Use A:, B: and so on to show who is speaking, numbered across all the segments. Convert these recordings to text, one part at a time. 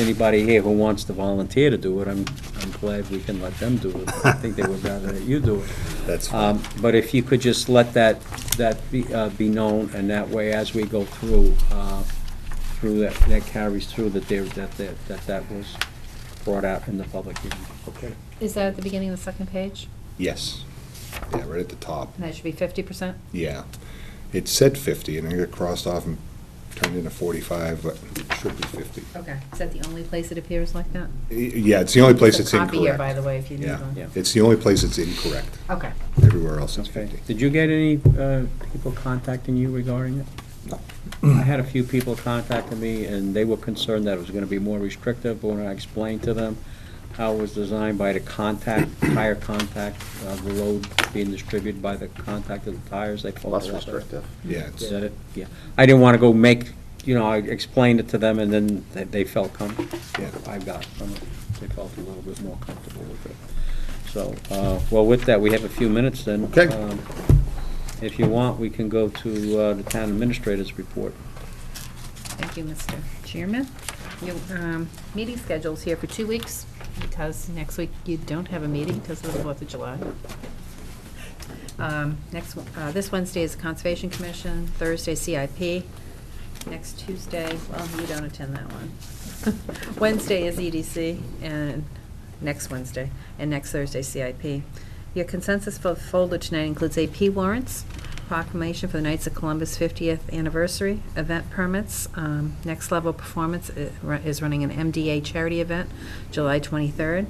A: anybody here who wants to volunteer to do it, I'm, I'm glad we can let them do it. I think they would rather that you do it.
B: That's
A: Um, But if you could just let that, that be, uh, be known, and that way, as we go through, uh, through that, that carries through that there, that, that, that that was brought out in the public hearing.
B: okay.
C: Is that at the beginning of the second page?
B: Yes. Yeah, right at the top.
C: And that should be fifty percent?
B: Yeah. It said 50, and then it got crossed off and turned into 45, but it should be 50.
C: Okay. Is that the only place it appears like that?
B: Y- Yeah, it's the only place it's
C: Copy here, by
B: incorrect.
C: the way, if you need
B: Yeah,
C: one.
A: Yeah.
B: it's the only place it's incorrect.
C: Okay.
B: Everywhere else it's
A: Okay.
B: 50.
A: Did you get any uh, people contacting you regarding it? I had a few people contacting me, and they were concerned that it was going to be more restrictive, but when I explained to them how it was designed by the contact, tire contact, uh, the load being distributed by the contact of the tires, they felt a lot
D: Less
A: better.
D: restrictive.
B: Yeah, it's,
A: Is that it? Yeah. I didn't want to go make, you know, I explained it to them, and then they- they felt comfortable.
B: Yeah.
A: I got from it. They felt a little bit more comfortable with it. So, uh, well, with that, we have a few minutes then.
B: Okay.
A: Um, If you want, we can go to uh, the town administrator's report.
C: Thank you, Mr. Chairman. Your um, meeting schedule's here for two weeks, because next week you don't have a meeting because of the Fourth of July. Um, Next, one- uh, this Wednesday is Conservation Commission, Thursday CIP, next Tuesday, well, you don't attend that one. Wednesday is EDC, and next Wednesday, and next Thursday CIP. Your consensus for the folder tonight includes AP warrants, proclamation for the Knights of Columbus 50th anniversary, event permits, um, Next Level Performance i- ru- is running an MDA charity event, July 23rd.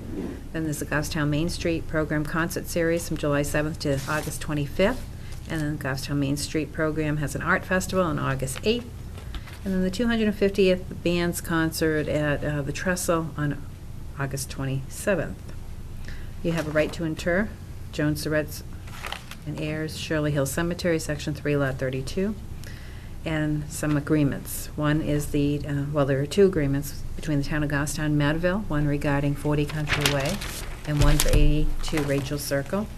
C: Then there's the Goffstown Main Street Program Concert Series from July 7th to August 25th. And then Goffstown Main Street Program has an art festival on August 8th. And then the 250th Bands Concert at uh, the Trestle on August 27th. You have a right to inter, Joan Surratt's and heirs, Shirley Hill Cemetery, Section 3, Lot 32, and some agreements. One is the, uh, well, there are two agreements between the town of Goffstown and Madville, one regarding 40 Country Way and one for 82 Rachel Circle.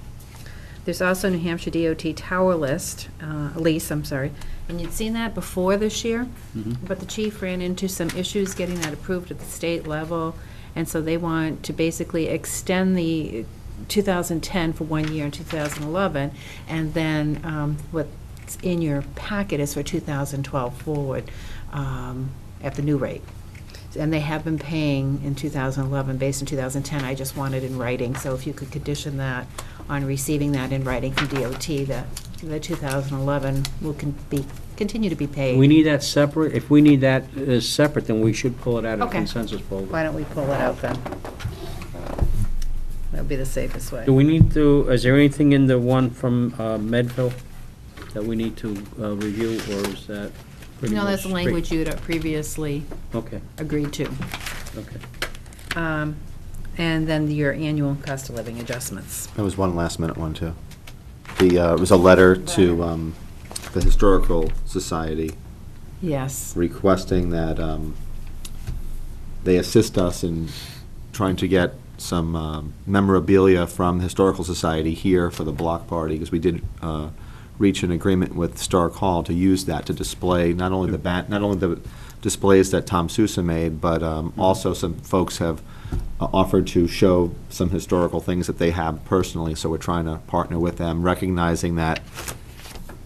C: There's also New Hampshire DOT tower list, uh, lease, I'm sorry, and you'd seen that before this year, but the chief ran into some issues getting that approved at the state level, and so they want to basically extend the 2010 for one year in 2011, and then um, what's in your packet is for 2012 forward um, at the new rate. And they have been paying in 2011, based in 2010, I just want it in writing, so if you could condition that on receiving that in writing from DOT, that the 2011 will con- be, continue to be paid.
A: We need that separate, if we need that uh, separate, then we should pull it out of the
C: Okay.
A: consensus folder.
C: Why don't we pull it out then? That would be the safest way.
A: Do we need to, is there anything in the one from uh, Medville that we need to uh, review, or is that pretty much?
C: No, that's the
A: straight?
C: language you'd previously
A: Okay,
C: agreed to.
A: okay.
C: Um, And then your annual cost of living adjustments.
D: There was one last minute one too. The, uh, it was a letter to, um, the Historical Society
C: Yes.
D: requesting that, um, they assist us in trying to get some, um, memorabilia from the Historical Society here for the block party, because we did, uh, reach an agreement with Stark Hall to use that to display not only the bat, not only the displays that Tom Sousa made, but, um, also some folks have uh, offered to show some historical things that they have personally, so we're trying to partner with them, recognizing that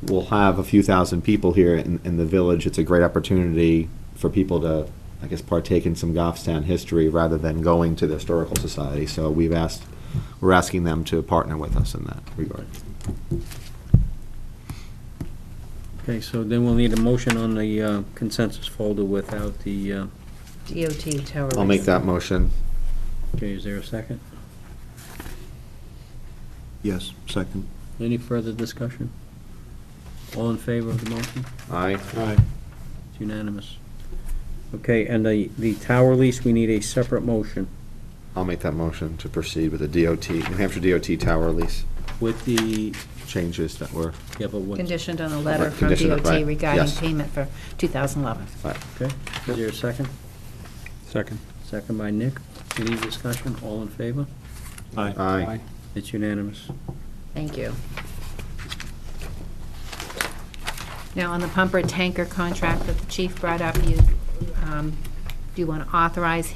D: we'll have a few thousand people here in, in the village. It's a great opportunity for people to, I guess, partake in some Goffstown history rather than going to the Historical Society. So we've asked, we're asking them to partner with us in that regard.
A: Okay, so then we'll need a motion on the uh, consensus folder without the, uh,
C: DOT tower.
D: I'll make
C: lease.
D: that motion.
A: okay, is there a second?
D: Yes, second.
A: Any further discussion? All in favor of the motion?
D: Aye. Aye.
A: It's unanimous. Okay, and the, the tower lease, we need a separate motion
D: I'll make that motion to proceed with the DOT, New Hampshire DOT tower lease
A: with the,
D: changes that were,
A: yeah, but what, okay?
C: Conditioned on a letter
D: Right,
C: from
D: conditioned,
C: DOT
D: right,
C: regarding
D: yes.
C: payment for 2011.
A: Is there a second? Second. Second by Nick. Any discussion? All in favor?
D: aye.
A: It's unanimous.
C: Thank you. Now, on the pumper tanker contract that the chief brought up, you, um, do you want to authorize